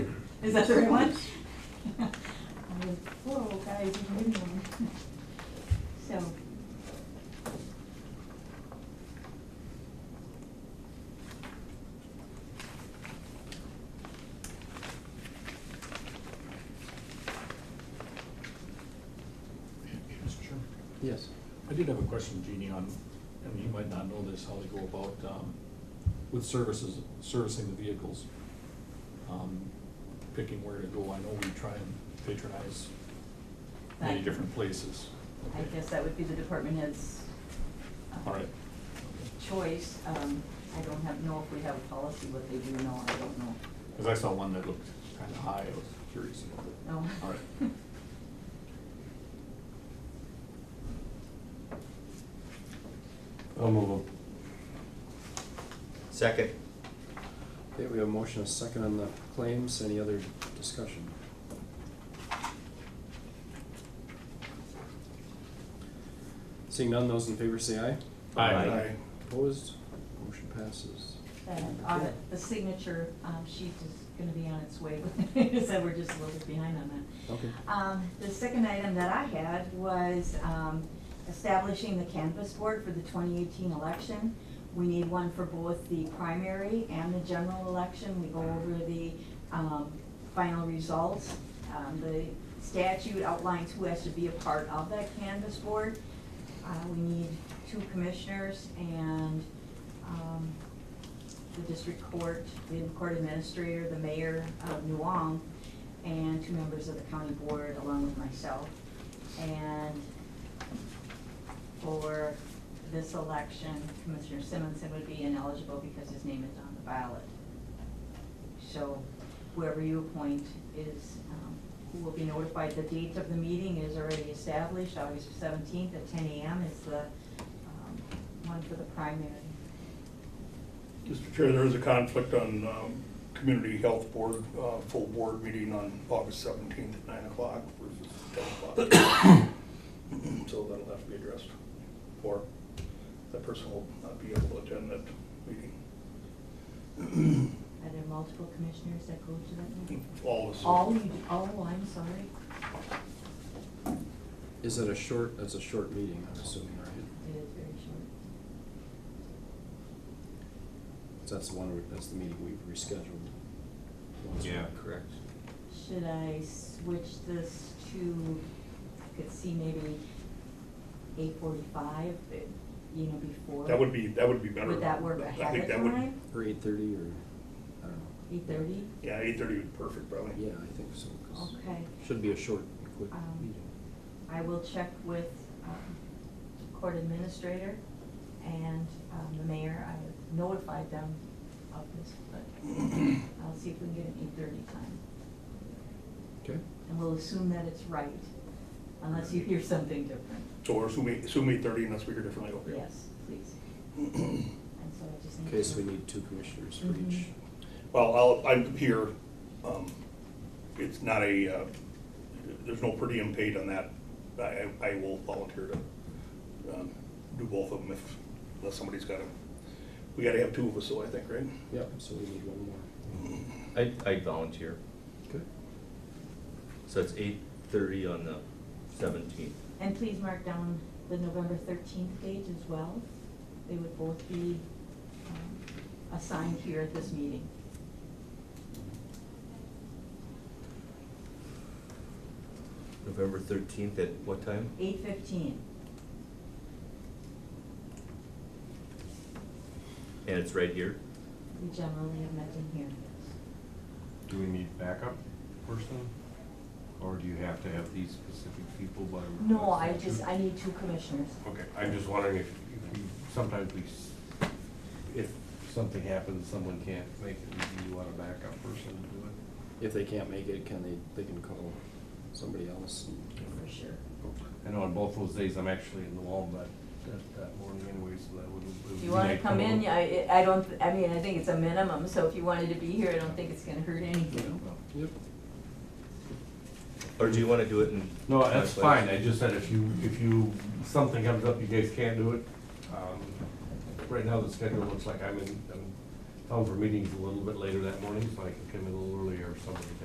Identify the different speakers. Speaker 1: Is that the right one? I was, whoa, guys, you did one. So.
Speaker 2: Mr. Chairman,
Speaker 3: Yes.
Speaker 2: I did have a question, Jeannie, on, and you might not know this, how they go about, um, with services, servicing the vehicles. Um, picking where to go, I know we try and patronize many
Speaker 1: Right.
Speaker 2: different places.
Speaker 1: I guess that would be the department head's. uh,
Speaker 2: All right.
Speaker 1: Choice, um, I don't have, know if we have a policy, what they do, no, I don't know.
Speaker 2: Cause I saw one that looked kinda high, I was curious about it.
Speaker 1: No.
Speaker 2: All right.
Speaker 4: I'll move them.
Speaker 5: Second.
Speaker 3: Okay, we have a motion, a second on the claims, any other discussion? Seeing none, those in favor say aye.
Speaker 5: Aye.
Speaker 4: Aye.
Speaker 3: Opposed, motion passes.
Speaker 1: That audit, the signature, um, sheet is gonna be on its way, so we're just a little bit behind on that.
Speaker 3: Okay.
Speaker 1: Um, the second item that I had was, um, establishing the canvas board for the twenty eighteen election. We need one for both the primary and the general election. We go over the, um, final results. Um, the statute outlines who has to be a part of that canvas board. Uh, we need two commissioners and, um, the district court, the court administrator, the mayor of Nuong, and two members of the county board along with myself. And for this election, Commissioner Simonson would be ineligible because his name is on the ballot. So whoever you appoint is, um, who will be notified, the date of the meeting is already established, August seventeenth at ten AM is the, um, one for the primary.
Speaker 6: Mr. Chair, there is a conflict on um, Community Health Board, uh, full board meeting on August 17th at 9 o'clock versus 10 o'clock. So that'll have to be addressed, or that person will not be able to attend that meeting.
Speaker 1: Are there multiple commissioners that go to that meeting?
Speaker 6: All of us.
Speaker 1: All you, do- oh, I'm sorry.
Speaker 3: Is it a short, that's a short meeting, I'm assuming, right?
Speaker 1: It is very short.
Speaker 3: So that's the one, we- that's the meeting we've rescheduled. One's-
Speaker 5: Correct.
Speaker 1: Should I switch this to, I could see maybe eight forty-five, eh, you know, before?
Speaker 6: That would be, that would be better.
Speaker 1: Would that work
Speaker 6: I
Speaker 1: ahead
Speaker 6: think
Speaker 1: of
Speaker 6: that would-
Speaker 1: time?
Speaker 3: Or eight thirty, or, I don't know,
Speaker 1: Eight thirty?
Speaker 6: Yeah, 8:30 would be perfect, probably.
Speaker 3: yeah, I think so, 'cause
Speaker 1: Okay.
Speaker 3: Should be a short, and quick
Speaker 1: Um,
Speaker 3: meeting.
Speaker 1: I will check with um, court administrator and um, the mayor. I notified them of this, but I'll see if we can get an eight-thirty time.
Speaker 3: Okay,
Speaker 1: And we'll assume that it's right, unless you hear something different.
Speaker 6: So we're assuming, assume 8:30 unless we hear differently, okay?
Speaker 1: Yes, please. And so I just need to.
Speaker 3: okay, so we need two commissioners for each.
Speaker 1: Mhm.
Speaker 6: Well, I'll, I'm here, um, it's not a, uh, there's no per diem paid on that. I, I I will volunteer to, um, do both of them if, unless somebody's gotta, we gotta have two of us, though, I think, right? Mm.
Speaker 3: Yep, so we need one more.
Speaker 5: I, I volunteer.
Speaker 3: Okay.
Speaker 5: So it's eight thirty on the seventeenth.
Speaker 1: And please mark down the November thirteenth date as well. They would both be um, assigned here at this meeting.
Speaker 5: November thirteenth at what time?
Speaker 1: Eight fifteen,
Speaker 5: And it's right here?
Speaker 1: we generally have met in here.
Speaker 7: Do we need backup person? Or do you have to have these specific people by?
Speaker 1: No, I
Speaker 7: request?
Speaker 1: just, I need two commissioners.
Speaker 7: Okay, I'm just wondering if, if we, sometimes we, s- if something happens, someone can't make it, do you want a backup person to do it?
Speaker 3: If they can't make it, can they, they can call somebody else?
Speaker 1: For sure.
Speaker 7: I know on both those days, I'm actually in the wall, but that, that morning anyway, so that wouldn't. it would
Speaker 1: If
Speaker 7: be
Speaker 1: you wanna
Speaker 7: like-
Speaker 1: come in, I, I don't, I mean, I think it's a minimum, so if you wanted to be here, I don't think it's gonna hurt anything.
Speaker 7: No.
Speaker 3: Yep.
Speaker 5: Or do you wanna do it in?
Speaker 7: No, that's
Speaker 5: my place?
Speaker 7: fine, I just said if you, if you, something comes up, you guys can't do it. Um, Right now, the schedule looks like I'm in, I'm home for meetings a little bit later that morning, so I can come in a little earlier if somebody